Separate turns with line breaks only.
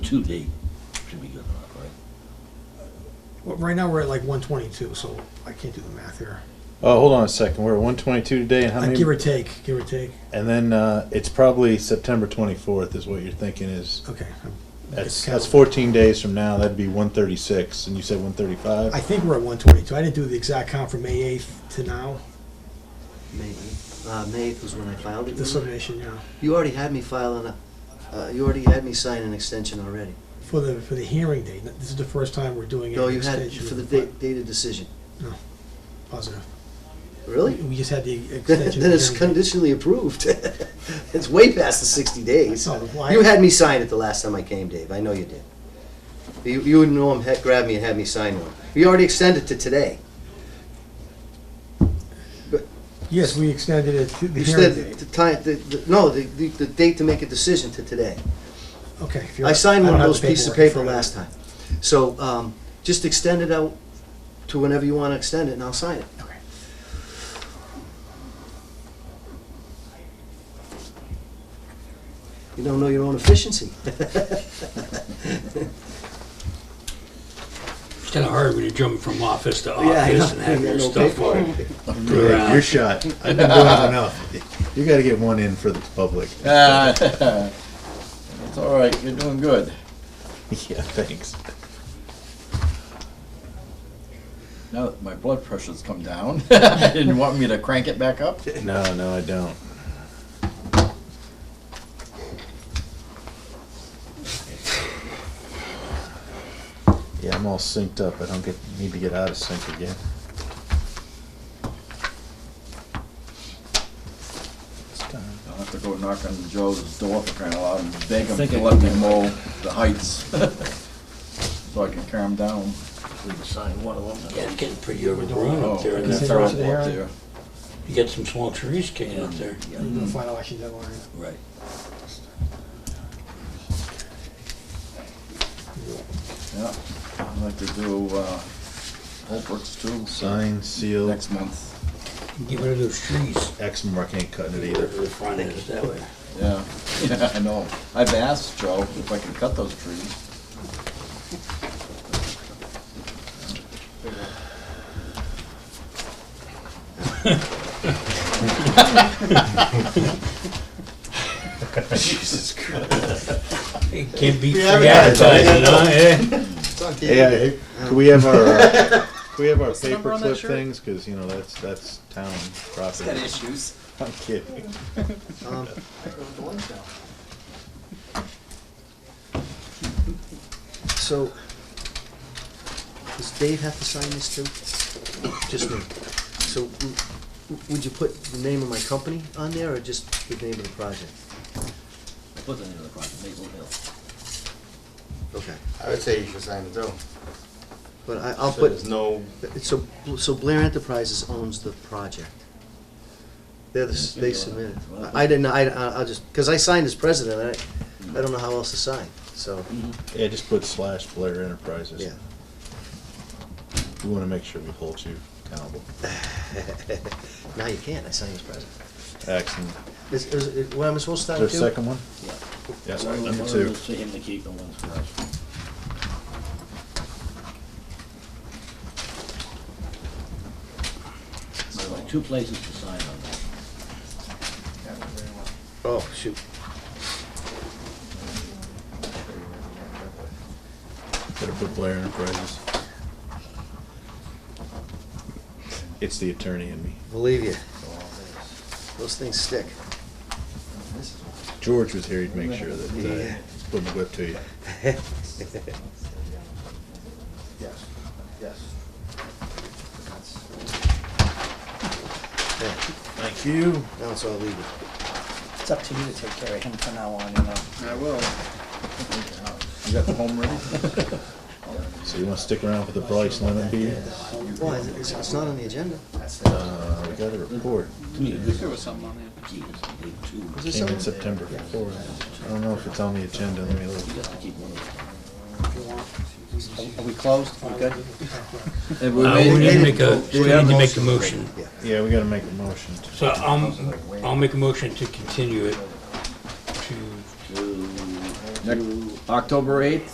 twenty-two date should be good enough, right?
Well, right now, we're at like one twenty-two, so I can't do the math here.
Oh, hold on a second. We're at 122 today, and how
Like,
many?
give or take, give or take.
and then uh, it's probably September 24th is what you're thinking is.
Okay. I'm-
That's
it's
that's
kind
14 days from now. That'd be 136, and you said
of-
135.
I think we're at one twenty-two. I didn't do the exact count from May eighth to now,
Maybe. Uh, May 8th was when I filed it.
the
remember?
submission, yeah.
You already had me file an, uh, you already had me sign an extension already.
For the, for the hearing date. This is the first time we're doing
No,
an
you had,
extension.
for the
of-
date, dated decision.
Positive.
Really?
We just had the extension.
Then it's
of the hearing date.
conditionally approved. It's way past the 60 days.
No, why-
You had me sign it the last time I came, Dave. I know you did. You, you and Norm had, grabbed me and had me sign one. We already extended to today.
Yes, we extended it to the
You
hearing
said
date.
the time, the, the- no, the, the the date to make a decision to today.
Okay. if you're-
I signed
don't
one of
have
those
the
pieces of
paperwork in
paper
front
last time. So, um, just extend it out to whenever you wanna extend it and I'll sign it.
of me. Okay.
You don't know your own efficiency.
It's kind of hard when you're jumping from office to
Yeah, I
office
know.
and having your
No
stuff
paperwork.
on.
Hey, Your shot. I've been doing enough. You got to get one in for the public.
Ah, It's all right, you're doing good.
Yeah, thanks.
Now that my blood pressure's come down, and you want me to crank it back up?
No, no, I don't. Yeah, I'm all synced up. I don't get need to get out of sync again. It's time.
I'll have to go knock on Joe's door for crying out loud and beg him to let me mow the heights, so I can calm down. Oh,
We can sign one of them.
Yeah, it's getting pretty overgrown up there. and
Is it
that-
terrible
terrible
up there?
up there.
You got some small trees hanging up there.
The final action deadline.
Right.
Yeah, I'd like to do, uh, Holbrook's too.
Sign, seal,
Next month,
Get rid of those trees.
Exmoor. I can't cut it
Where
either.
the front is, that way.
yeah, yeah, I know. I've asked Joe if I can cut those trees.
Jesus Christ.
It can't be free
Yeah, yeah,
advertising, huh? Eh?
Yeah, could we have our, uh, could we have our
What's the number on that
paperclip
shirt?
things? Because, you know, that's, that's town property.
issues.
I'm kidding.
Um, So, does Dave have to sign this too? Just me. So, w- w- would you put the name of my company on there or just the name of the project?
Put it in the front, Maple Hill.
Okay.
I would say you should sign it though.
But I, I'll
So
put,
There's no,
so, so Blair Enterprises owns the project. They're the, s- they submitted. I I didn't, I, I- I'll just, because I signed as president,
Mm.
I, I don't know how else to sign, so,
Yeah, just put slash Blair Enterprises.
yeah.
We want to make sure we hold you accountable.
Now you can't, I signed as president.
Excellent.
Is, is, is- what am I supposed to
Uh,
Is there
sign too?
a second one?
Yeah.
Yeah,
One
sorry,
of them-
number
one of
two.
them's For him to keep and one's for us. There's like two places to sign on that.
Oh, shoot.
Better put Blair Enterprises. It's the attorney in me.
Believe you.
Oh,
Those things stick.
George was here, he'd make sure that, uh, he's putting the whip to you.
yes, yes.
Yeah,
Thank you.
Now it's all legal.
It's up to you to take care of him from now on, you know.
I will. You got the home ready?
So you want to stick around for the Bryce Lemon beer?
Why, is it- it's, it's not on the agenda.
Uh, we got a report.
There was something on there. Jesus, big two.
Is there
Came in
something?
September 4th. I don't know if it's on the agenda. Let me look.
You got to keep one of them.
Are we closed? We good?
Uh, we need to make a, we need to make a motion.
Yeah, we gotta make a motion. to-
So um, I'm, I'll make a motion to continue it to
Two,
Next-
two,
October eighth,